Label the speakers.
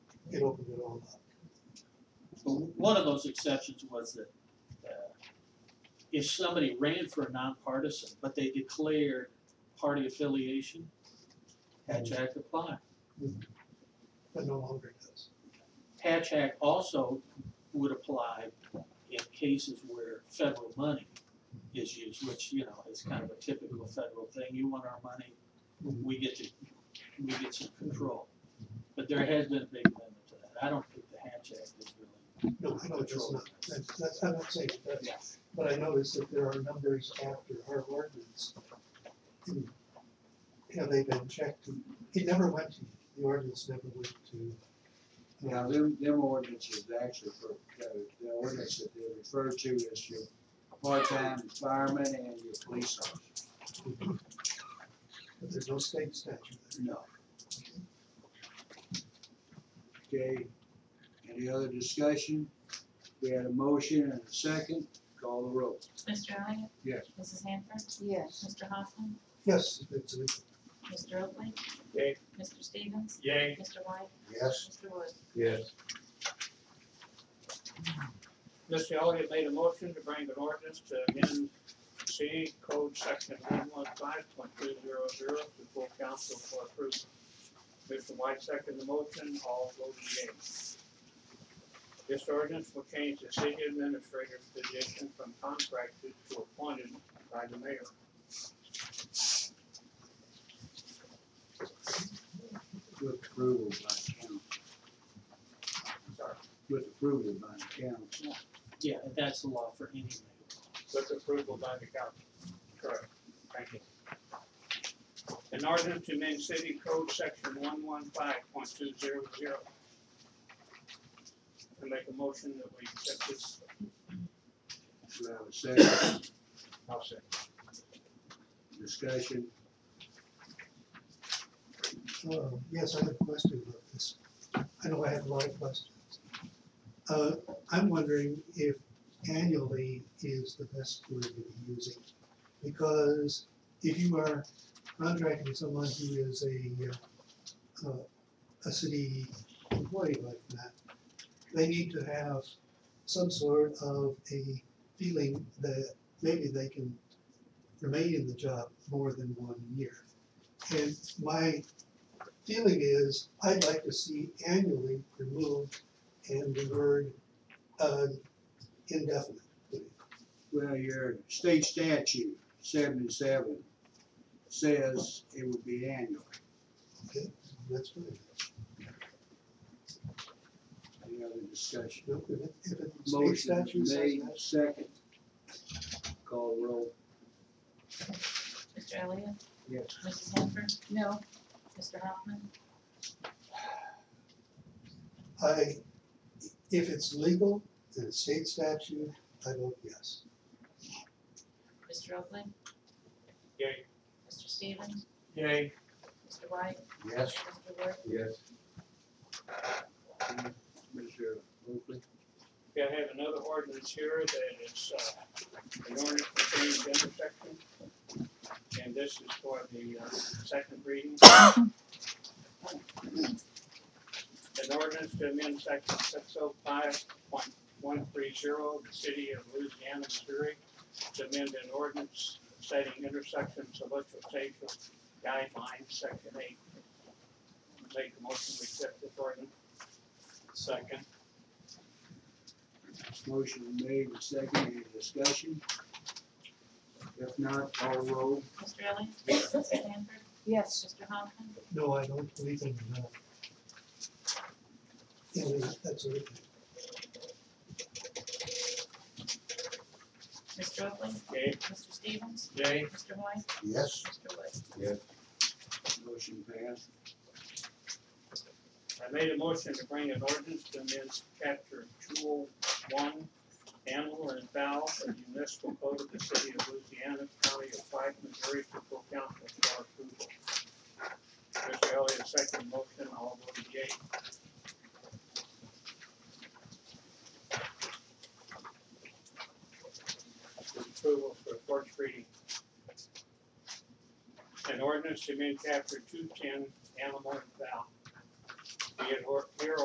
Speaker 1: opened it all up.
Speaker 2: But one of those exceptions was that uh, if somebody ran for a nonpartisan, but they declared party affiliation, Hatch Act applied.
Speaker 1: That no longer does.
Speaker 2: Hatch Act also would apply in cases where federal money is used, which, you know, is kind of a typical federal thing. You want our money, we get to, we get some control. But there has been a big limit to that. I don't think the Hatch Act is really,
Speaker 1: No, I know it does not. That's, that's, I'm not saying it does. But I noticed that there are numbers after our ordinance. Hmm. Have they been checked? It never went to, the ordinance never went to. uh,
Speaker 3: Now, them, them ordinances actually for, uh, the ordinance that they refer to is your part-time fireman and your police officer.
Speaker 1: But there's no state statute
Speaker 3: No. Okay, any other discussion? We had a motion and a second, call the roll.
Speaker 4: Mr. Elliott?
Speaker 3: Yes.
Speaker 4: Mrs. Hanford?
Speaker 5: Yes.
Speaker 4: Mr. Hoffman?
Speaker 1: there. Yes, it's, a-
Speaker 4: Mr. Oakley?
Speaker 6: Yay.
Speaker 4: Mr. Stevens?
Speaker 6: Yay.
Speaker 4: Mr. White?
Speaker 3: Yes.
Speaker 4: Mr. Wood?
Speaker 6: Yes.
Speaker 7: Mr. Elliott made a motion to bring an ordinance to amend C code section one one five point two zero zero to full council for approval. Mr. White seconded the motion, all voted yea. This ordinance will change the city administrator's position from contracted to appointed by the mayor.
Speaker 3: With approval by council.
Speaker 7: Sorry.
Speaker 3: With approval by council.
Speaker 2: yeah, that's the law for any mayor.
Speaker 7: with approval by the council. Correct. Thank you. An ordinance to amend city code section one one five point two zero zero. I make a motion that we accept this.
Speaker 3: Do I have a second
Speaker 7: I'll second.
Speaker 3: discussion?
Speaker 1: uh, yes, I have a question about this. I know I have a lot of questions. Uh, I'm wondering if annually is the best word to be using. Because if you are contracting someone who is a, uh, uh, a city employee like that, they need to have some sort of a feeling that maybe they can remain in the job more than one year. And my feeling is, I'd like to see annually removed and the word, uh, indefinite.
Speaker 3: Well, your state statute seventy-seven says it would be annual.
Speaker 1: That's fine.
Speaker 3: Any other discussion?
Speaker 1: No, If it- if it state
Speaker 3: Motion
Speaker 1: statute says
Speaker 3: made,
Speaker 1: that,
Speaker 3: second. Call roll.
Speaker 4: Mr. Elliott?
Speaker 3: Yes.
Speaker 4: Mrs. Hanford?
Speaker 5: No.
Speaker 4: Mr. Hoffman?
Speaker 1: I, if it's legal, in a state statute, I vote yes.
Speaker 4: Mr. Oakley?
Speaker 7: Yay.
Speaker 4: Mr. Stevens?
Speaker 7: Yay.
Speaker 4: Mr. White?
Speaker 3: Yes.
Speaker 4: Mr. Wood?
Speaker 6: Yes.
Speaker 3: Mr. Oakley.
Speaker 7: Okay, I have another ordinance here that is, uh, an ordinance for change intersection. And this is for the, uh, second reading. An ordinance to amend section six oh five point one three zero, the city of Louisiana, Missouri, to amend an ordinance setting intersections of electrification guidelines, section eight. Make a motion, we accept this ordinance. Second.
Speaker 3: Motion made, and second, any discussion? If not, call roll.
Speaker 4: Mr. Elliott? Mrs. Hanford?
Speaker 5: Yes.
Speaker 4: Mr. Hoffman?
Speaker 1: No, I don't believe in, uh, in the- that's a,
Speaker 4: Mr. Oakley?
Speaker 7: Yay.
Speaker 4: Mr. Stevens?
Speaker 7: Yay.
Speaker 4: Mr. White?
Speaker 3: Yes.
Speaker 4: Mr. Wood?
Speaker 3: Motion passed.
Speaker 7: I made a motion to bring an ordinance to amend chapter two oh one, animal and fowl of the municipal code of the city of Louisiana, county of Pike, Missouri, for full council for approval. Mr. Elliott, second motion, all voted yea. For Approval for first reading. An ordinance to amend chapter two ten, animal and fowl. Be it or, here